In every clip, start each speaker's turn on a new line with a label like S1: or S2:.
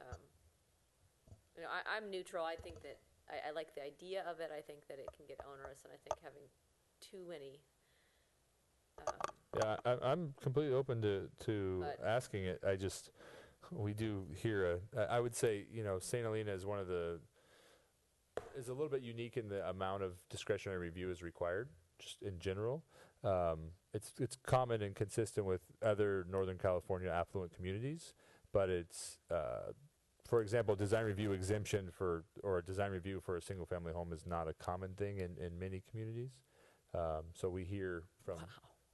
S1: Um, I, I'm neutral. I think that, I, I like the idea of it. I think that it can get onerous, and I think having too many, um,
S2: Yeah, I, I'm completely open to, to
S1: But-
S2: asking it. I just, we do hear a, I I would say, you know, St. Helena is one of the, is a little bit unique in the amount of discretionary review is required, just in general. Um, it's, it's common and consistent with other Northern California affluent communities, but it's, uh, for example, design review exemption for, or a design review for a single family home is not a common thing in, in many communities. Um, so we hear from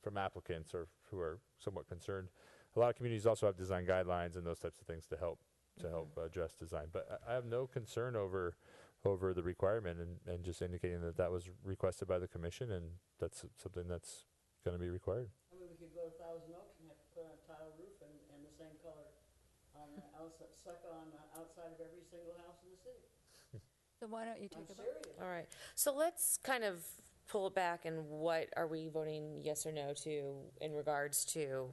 S2: from applicants or who are somewhat concerned. A lot of communities also have design guidelines and those types of things to help to help address design. But I, I have no concern over over the requirement and, and just indicating that that was requested by the commission and that's something that's going to be required.
S3: I mean, we could go to Thousand Oaks and have to put on a tile roof and, and the same color on the outside, suck on the outside of every single house in the city.
S4: So why don't you
S3: I'm
S4: take a vote?
S3: serious.
S5: All right, so let's kind of pull it back and what are we voting yes or no to in regards to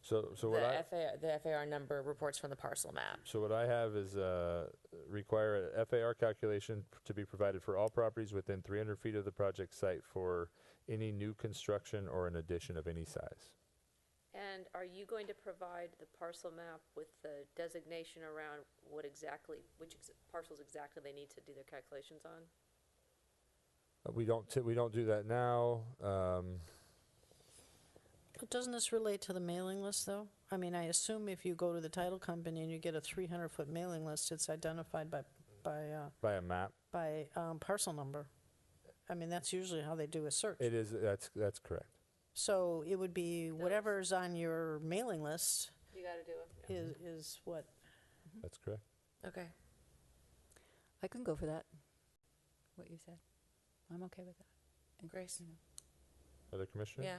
S2: So so what I
S5: the FAR, the FAR number reports from the parcel map?
S2: So what I have is uh, require a FAR calculation p- to be provided for all properties within 300 feet of the project site for any new construction or an addition of any size.
S1: and are you going to provide the parcel map with the designation around what exactly, which ex- parcels exactly they need to do their calculations on?
S2: Uh, We don't t- we don't do that now. Um,
S6: But Doesn't this relate to the mailing list, though? I mean, I assume if you go to the title company and you get a 300-foot mailing list, it's identified by, by, uh,
S2: by a map,
S6: by um, parcel number. I mean, that's usually how they do a search.
S2: it is that's that's correct.
S6: So it would be whatever's on your mailing list
S1: You gotta do it.
S6: is, is what,
S1: Mm-hmm.
S2: That's correct.
S5: Okay.
S4: I can go for that, what you said. I'm okay with that. And,
S5: Grace?
S4: you know,
S2: Other commissioner?
S5: Yeah.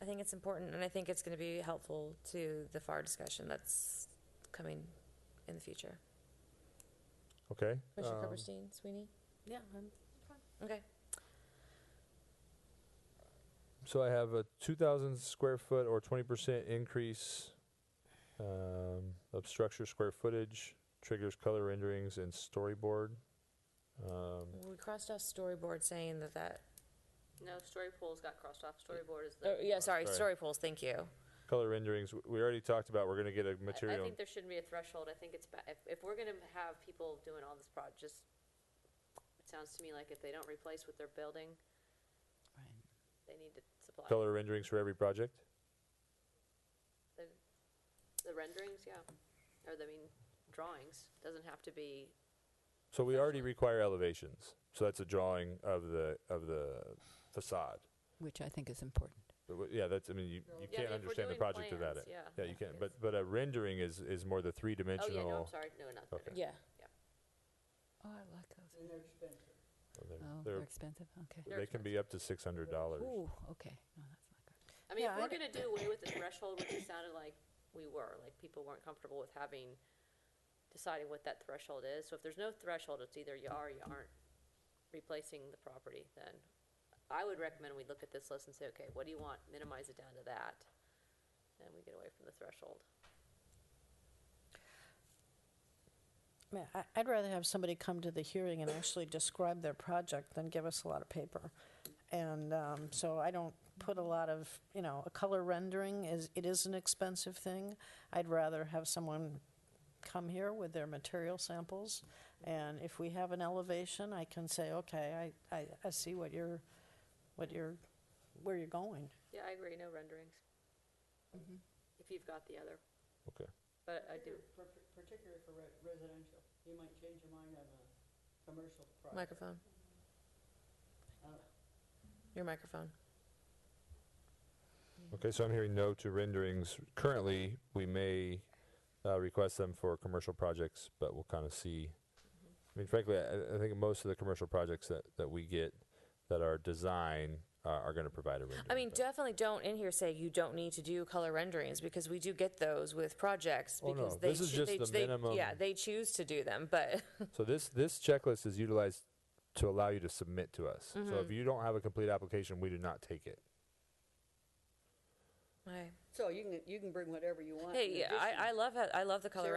S5: I think it's important, and I think it's gonna be helpful to the FAR discussion that's coming in the future.
S2: Okay.
S5: Commissioner
S2: um,
S5: Copperstein, Sweeney?
S6: yeah, I'm-
S5: Okay.
S2: so I have a 2,000 square foot or 20% increase um, of structure square footage triggers color renderings and storyboard. Um,
S5: We crossed off storyboard saying that that,
S1: No, story pools got crossed off. Storyboard is the.
S5: oh, yeah, sorry,
S2: sorry.
S5: story polls, thank you.
S2: color renderings w- we already talked about we're going to get a
S1: I- I
S2: material
S1: think there shouldn't be a threshold. I think it's, ba- if, if we're gonna have people doing all this prod, just, it sounds to me like if they don't replace what they're building,
S4: Right.
S1: they need to supply
S2: color renderings for every project
S1: the renderings, yeah. Or, I mean, drawings. Doesn't have to be,
S2: so we already require elevations so that's a drawing of the of the facade
S4: Which I think is important.
S2: But w- yeah that's i mean you,
S1: Yeah, I
S2: you can't
S1: mean, if we're
S2: understand the
S1: doing
S2: project without it
S1: plans, yeah.
S2: you can't
S1: Yes.
S2: but but a rendering is is more the three
S1: oh, yeah, no, I'm
S2: dimensional
S1: sorry. No, not
S2: Okay.
S1: renderings.
S5: Yeah.
S4: Oh, I like those.
S3: And they're expensive.
S4: Oh, they're expensive, okay.
S1: They're
S2: they can be up to six hundred dollars
S4: Ooh, okay, no, that's not good.
S1: I mean, if
S6: Yeah,
S1: we're
S6: I-
S1: gonna do away with the threshold, which it sounded like we were, like people weren't comfortable with having, deciding what that threshold is. So if there's no threshold, it's either you are or you aren't replacing the property, then I would recommend we look at this list and say, okay, what do you want? Minimize it down to that. And we get away from the threshold.
S6: I mean, I- I'd rather have somebody come to the hearing and actually describe their project than give us a lot of paper. And um, so I don't put a lot of, you know, a color rendering is, it is an expensive thing. I'd rather have someone come here with their material samples. And if we have an elevation, I can say, okay, I, I, I see what you're, what you're, where you're going.
S1: Yeah, I agree, no renderings.
S6: Mm-hmm.
S1: If you've got the other,
S2: okay
S1: but I do,
S3: Particular- par- Particularly for re- residential. You might change your mind on a commercial project.
S5: Microphone,
S3: I don't know.
S5: your microphone.
S2: okay so i'm hearing no to renderings currently we may uh, request them for commercial projects but we'll kind of see i mean frankly I, I think most of the commercial projects that that we get that are design uh, are going to provide a rendering
S5: I mean,
S2: but-
S5: definitely don't in here say you don't need to do color renderings because we do get those with projects
S2: Oh,
S5: because
S2: no.
S5: they
S2: This is
S5: choo-
S2: just
S5: they-
S2: the
S5: they-
S2: minimum.
S5: Yeah, they choose to do them, but
S2: So this this checklist is utilized to allow you to submit to us.
S1: Mm-hmm.
S2: So if you don't have a complete application, we do not take it.
S5: Right.
S3: So you can, you can bring whatever you want.
S5: hey,
S3: in
S5: yeah,
S3: addition
S5: I, I love how, I love the color